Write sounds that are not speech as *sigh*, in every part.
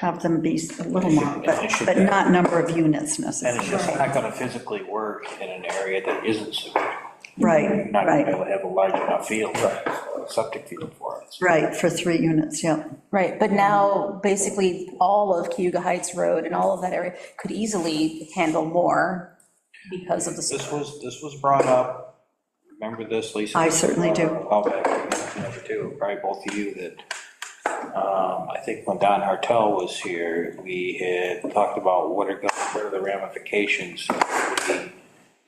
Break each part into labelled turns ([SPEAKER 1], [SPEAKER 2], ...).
[SPEAKER 1] have them be a little more, but, but not number of units
[SPEAKER 2] And it's
[SPEAKER 1] necessarily.
[SPEAKER 2] just not gonna physically work in an area that isn't sewer.
[SPEAKER 1] Right,
[SPEAKER 2] Not gonna be
[SPEAKER 1] right,
[SPEAKER 2] able to have a large enough field, septic field for it.
[SPEAKER 1] right, for three units, yeah.
[SPEAKER 3] Right, but now, basically, all of Cayuga Heights Road and all of that area could easily handle more because of the,
[SPEAKER 2] This was, this was brought up, remember this, Lisa?
[SPEAKER 1] I certainly do.
[SPEAKER 2] A while back, you mentioned it too, probably both of you, that, um, I think when Don Hartel was here, we had talked about what are, go- what are the ramifications of the-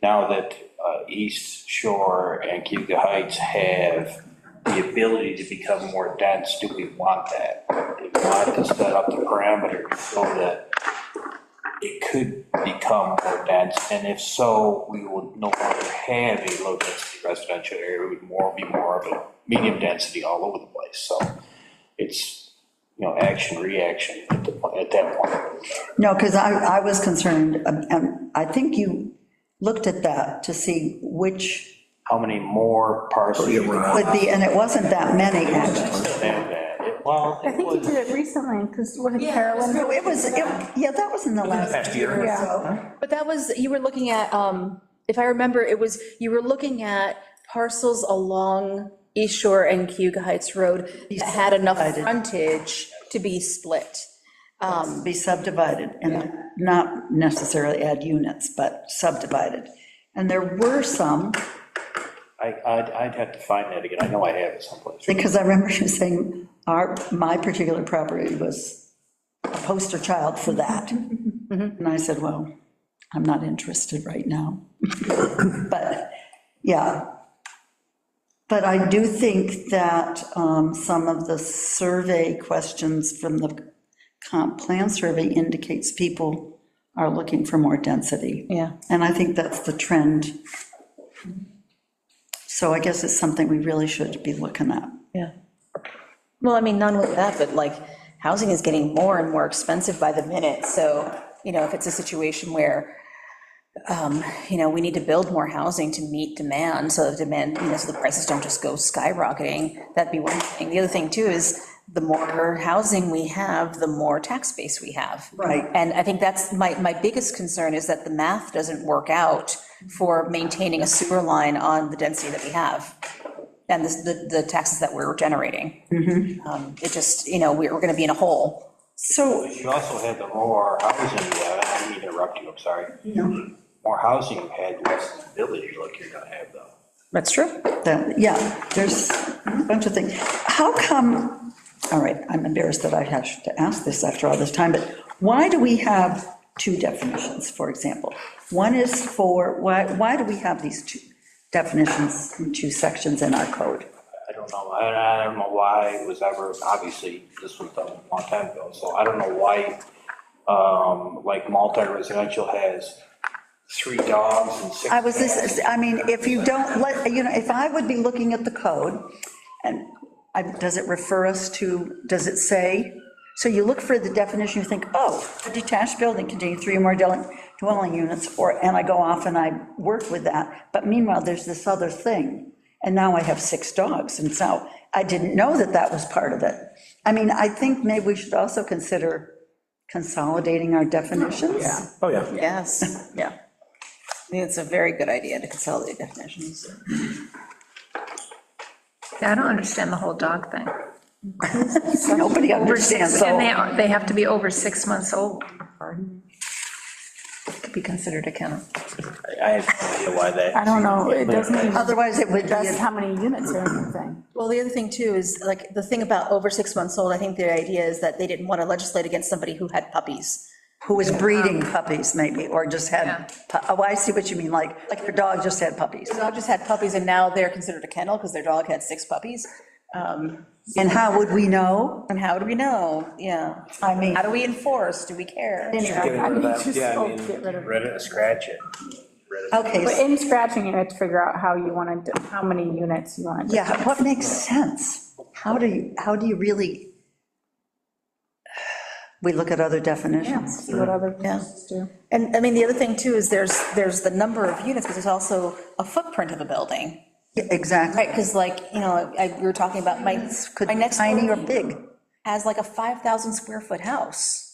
[SPEAKER 2] now that uh, East Shore and Cuba Heights have the ability to become more dense, do we want that? Do we want to set up the parameter so that it could become more dense, and if so, we would no longer have a low-density residential area, it would more be more of a medium density all over the place, so it's, you know, action, reaction at the, point- at that point.
[SPEAKER 1] No, because I, I was concerned, um, and I think you looked at that to see which
[SPEAKER 2] How many more parcels? you could have
[SPEAKER 1] would be, and it wasn't that many, actually.
[SPEAKER 2] that. It- Well,
[SPEAKER 4] I
[SPEAKER 2] it
[SPEAKER 4] think you
[SPEAKER 2] was,
[SPEAKER 4] did it recently, because what did Carolyn,
[SPEAKER 1] No, It was, it- yeah, that was in the last
[SPEAKER 2] past
[SPEAKER 1] year
[SPEAKER 2] year.
[SPEAKER 1] or
[SPEAKER 4] Yeah.
[SPEAKER 1] so.
[SPEAKER 5] But that was, you were looking at, um, if I remember, it was, you were looking at parcels along East Shore and Cuba Heights Road that had enough
[SPEAKER 1] Divided.
[SPEAKER 5] frontage to be split. Um,
[SPEAKER 1] Be subdivided and not necessarily add units, but subdivided. And there were some,
[SPEAKER 2] I, I'd, I'd have to find that again, I know I have it someplace.
[SPEAKER 1] because I remember you saying, our, my particular property was a poster child for that. And I said, well, I'm not interested right now. *laughs* But, yeah. But I do think that um, some of the survey questions from the comp plan survey indicates people are looking for more density.
[SPEAKER 3] yeah.
[SPEAKER 1] And I think that's the trend. So I guess it's something we really should be looking at.
[SPEAKER 3] Yeah. Well, I mean, not only that, but like, housing is getting more and more expensive by the minute, so, you know, if it's a situation where, um, you know, we need to build more housing to meet demand, so the demand, you know, so the prices don't just go skyrocketing, that'd be one thing. The other thing, too, is the more housing we have, the more tax base we have.
[SPEAKER 1] Right.
[SPEAKER 3] And I think that's, my, my biggest concern is that the math doesn't work out for maintaining a sewer line on the density that we have and this- the, the taxes that we're generating. Um, It just, you know, we're, we're gonna be in a hole.
[SPEAKER 1] So,
[SPEAKER 2] You also had the more housing, you had. I didn't mean to interrupt you, I'm sorry. More housing you had, less ability, like you're gonna have though.
[SPEAKER 3] That's true.
[SPEAKER 1] that- yeah, there's a bunch of things. How come, all right, I'm embarrassed that I have to ask this after all this time, but why do we have two definitions, for example? One is for, why, why do we have these two definitions, in two sections in our code?
[SPEAKER 2] I don't know, I, I don't know why it was ever, obviously, this was done a long time ago, so I don't know why, um, like multi-residential has three dogs and six.
[SPEAKER 1] I was,
[SPEAKER 2] cats.
[SPEAKER 1] this, I mean, if you don't let, you know, if I would be looking at the code, and I, does it refer us to, does it say? So you look for the definition, you think, oh, a detached building containing three or more dwelling, dwelling units, or, and I go off and I work with that, but meanwhile, there's this other thing, and now I have six dogs, and so I didn't know that that was part of it. I mean, I think maybe we should also consider consolidating our definitions.
[SPEAKER 6] Oh, yeah.
[SPEAKER 3] Yes, *laughs* yeah. I think it's a very good idea to consolidate definitions.
[SPEAKER 4] I don't understand the whole dog thing.
[SPEAKER 1] Nobody
[SPEAKER 4] Over
[SPEAKER 1] understands,
[SPEAKER 4] six,
[SPEAKER 1] so.
[SPEAKER 4] and they, are- they have to be over six months old. To be considered a kennel.
[SPEAKER 2] I have no idea why that.
[SPEAKER 7] I don't know, it doesn't,
[SPEAKER 1] Otherwise, it would be.
[SPEAKER 7] that's how many units or anything.
[SPEAKER 5] Well, the other thing too is like, the thing about over six months old, I think the idea is that they didn't want to legislate against somebody who had puppies.
[SPEAKER 1] Who was breeding puppies, maybe, or just had, pu- oh, I see what you mean, like, like your dog just had puppies.
[SPEAKER 3] Dog just had puppies and now they're considered a kennel because their dog had six puppies. Um,
[SPEAKER 1] And how would we know?
[SPEAKER 3] And how do we know? Yeah.
[SPEAKER 1] I mean,
[SPEAKER 3] How do we enforce? Do we care?
[SPEAKER 6] Getting rid of that,
[SPEAKER 7] Just
[SPEAKER 6] yeah, I
[SPEAKER 7] go
[SPEAKER 6] mean-
[SPEAKER 7] get rid of it.
[SPEAKER 2] Read it, scratch it.
[SPEAKER 7] But
[SPEAKER 1] okay,
[SPEAKER 7] in scratching it, you have to figure out how you want to, how many units you want.
[SPEAKER 1] yeah, what makes sense? How do you, how do you really? *sighs* We look at other definitions.
[SPEAKER 7] See what other places do.
[SPEAKER 3] And, I mean, the other thing too is there's, there's the number of units, but there's also a footprint of a building.
[SPEAKER 1] Yeah, Exactly.
[SPEAKER 3] Right, because like, you know, I, we were talking about my,
[SPEAKER 1] Could
[SPEAKER 3] my
[SPEAKER 1] be
[SPEAKER 3] next.
[SPEAKER 1] tiny
[SPEAKER 3] door
[SPEAKER 1] or big.
[SPEAKER 3] as like a 5,000 square foot house.